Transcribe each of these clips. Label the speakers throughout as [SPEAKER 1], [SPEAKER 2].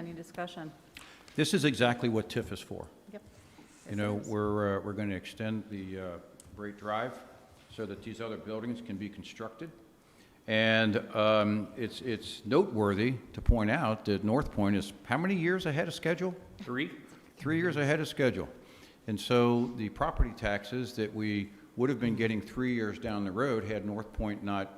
[SPEAKER 1] Any discussion?
[SPEAKER 2] This is exactly what TIF is for.
[SPEAKER 1] Yep.
[SPEAKER 2] You know, we're, uh, we're going to extend the uh, Great Drive so that these other buildings can be constructed. And um, it's, it's noteworthy to point out that North Point is how many years ahead of schedule?
[SPEAKER 3] Three?
[SPEAKER 2] Three years ahead of schedule. And so the property taxes that we would have been getting three years down the road had North Point not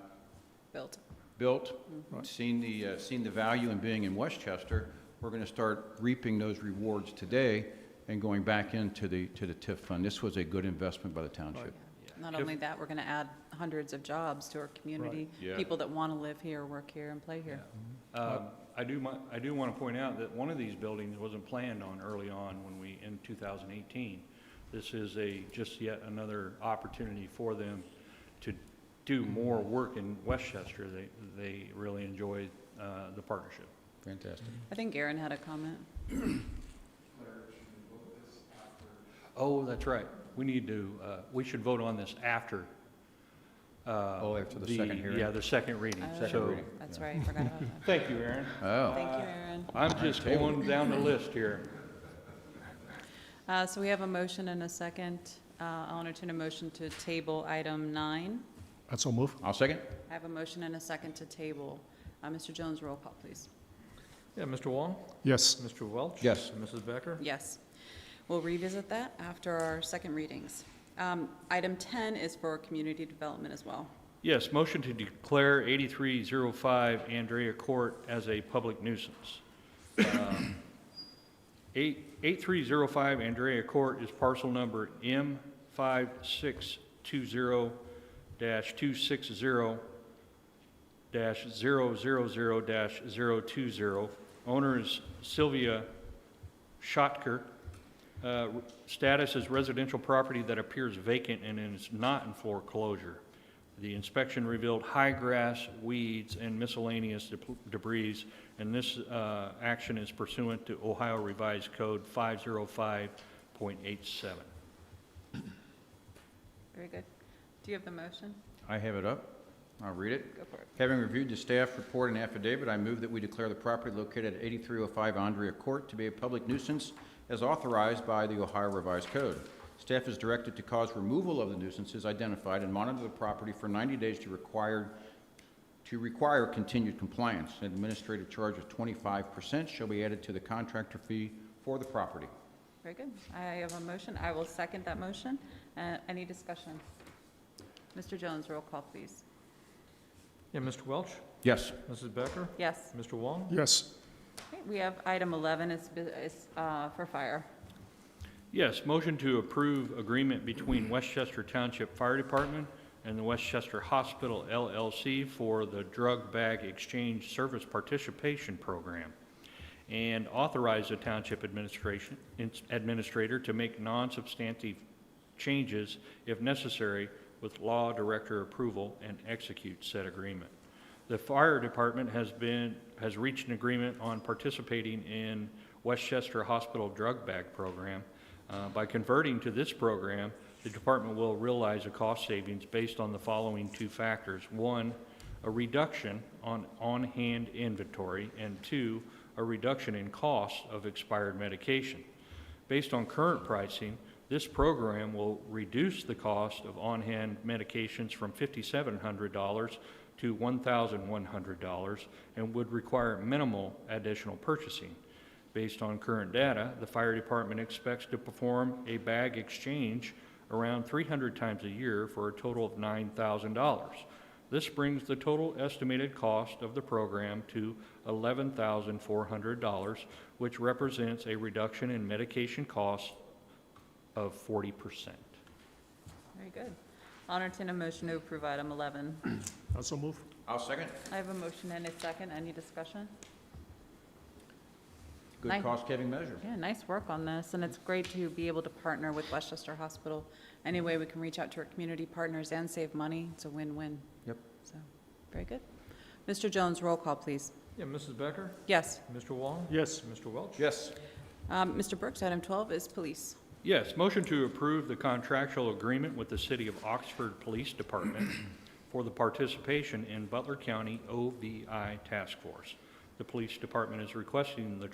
[SPEAKER 1] Built.
[SPEAKER 2] built, seen the, uh, seen the value in being in Westchester, we're going to start reaping those rewards today and going back into the, to the TIF fund. This was a good investment by the township.
[SPEAKER 1] Not only that, we're going to add hundreds of jobs to our community.
[SPEAKER 3] Yeah.
[SPEAKER 1] People that want to live here, work here, and play here.
[SPEAKER 3] Um, I do, mi- I do want to point out that one of these buildings wasn't planned on early on when we, in 2018. This is a, just yet another opportunity for them to do more work in Westchester. They, they really enjoy uh, the partnership.
[SPEAKER 2] Fantastic.
[SPEAKER 1] I think Aaron had a comment.
[SPEAKER 3] Oh, that's right. We need to, uh, we should vote on this after.
[SPEAKER 2] Oh,
[SPEAKER 3] Oh,
[SPEAKER 2] after the second hearing.
[SPEAKER 3] Yeah, the second reading.
[SPEAKER 1] Oh,
[SPEAKER 3] So-
[SPEAKER 2] reading.
[SPEAKER 1] That's right, I forgot about that.
[SPEAKER 3] Thank you, Aaron.
[SPEAKER 2] Oh,
[SPEAKER 1] Thank you, Aaron.
[SPEAKER 3] I'm just
[SPEAKER 2] table.
[SPEAKER 3] going down the list here.
[SPEAKER 1] Uh, So we have a motion and a second. Uh, I'll entertain a motion to table item nine.
[SPEAKER 4] I so move.
[SPEAKER 2] I'll second.
[SPEAKER 1] I have a motion and a second to table. Uh, Mr. Jones, roll call, please.
[SPEAKER 5] Yeah, Mr. Wong,
[SPEAKER 4] Yes,
[SPEAKER 5] Mr. Welch.
[SPEAKER 2] Yes.
[SPEAKER 5] and Mrs. Becker.
[SPEAKER 1] Yes. We'll revisit that after our second readings. Um, Item 10 is for community development as well.
[SPEAKER 3] Yes, motion to declare 8305 Andrea Court as a public nuisance. Um, eight- 8305 Andrea Court is parcel number M5620-260-000-020. Owner is Sylvia Schottker. Uh, Status is residential property that appears vacant and is not in foreclosure. The inspection revealed high grass, weeds, and miscellaneous deb- debris, and this uh, action is pursuant to Ohio Revised Code 505.87.
[SPEAKER 1] Very good. Do you have the motion?
[SPEAKER 2] I have it up. I'll read it.
[SPEAKER 1] Go for it.
[SPEAKER 2] Having reviewed the staff report and affidavit, I move that we declare the property located at 8305 Andrea Court to be a public nuisance as authorized by the Ohio Revised Code. Staff is directed to cause removal of the nuisances identified and monitor the property for 90 days to require, to require continued compliance. An administrative charge of 25% shall be added to the contractor fee for the property.
[SPEAKER 1] Very good. I have a motion. I will second that motion. Uh, Any discussion? Mr. Jones, roll call, please.
[SPEAKER 5] Yeah, Mr. Welch,
[SPEAKER 2] Yes.
[SPEAKER 5] Mrs. Becker,
[SPEAKER 1] Yes.
[SPEAKER 5] Mr. Wong.
[SPEAKER 4] yes,
[SPEAKER 1] Okay, We have item 11 is bu- is uh, for fire.
[SPEAKER 3] Yes, motion to approve agreement between Westchester Township Fire Department and the Westchester Hospital LLC for the Drug Bag Exchange Service Participation Program, and authorize the Township Administration, Administrator to make non-substantive changes if necessary with law director approval and execute said agreement. The fire department has been, has reached an agreement on participating in Westchester Hospital Drug Bag Program. Uh, By converting to this program, the department will realize a cost savings based on the following two factors. One, a reduction on on-hand inventory, and two, a reduction in cost of expired medication. Based on current pricing, this program will reduce the cost of on-hand medications from $5,700 to $1,100 and would require minimal additional purchasing. Based on current data, the fire department expects to perform a bag exchange around 300 times a year for a total of $9,000. This brings the total estimated cost of the program to $11,400, which represents a reduction in medication costs of 40%.
[SPEAKER 1] Very good. I'll entertain a motion to approve item 11.
[SPEAKER 4] I so move.
[SPEAKER 2] I'll second.
[SPEAKER 1] I have a motion and a second. Any discussion?
[SPEAKER 2] Good
[SPEAKER 1] Aye.
[SPEAKER 2] cost-saving measure.
[SPEAKER 1] Yeah, nice work on this, and it's great to be able to partner with Westchester Hospital. Any way we can reach out to our community partners and save money, it's a win-win,
[SPEAKER 2] Yep.
[SPEAKER 1] so, very good. Mr. Jones, roll call, please.
[SPEAKER 5] Yeah, Mrs. Becker,
[SPEAKER 1] Yes.
[SPEAKER 5] Mr. Wong.
[SPEAKER 4] Yes,
[SPEAKER 5] Mr. Welch.
[SPEAKER 2] Yes.
[SPEAKER 1] Um, Mr. Brooks, item 12 is police.
[SPEAKER 3] Yes, motion to approve the contractual agreement with the City of Oxford Police Department for the participation in Butler County OVI Task Force. The police department is requesting the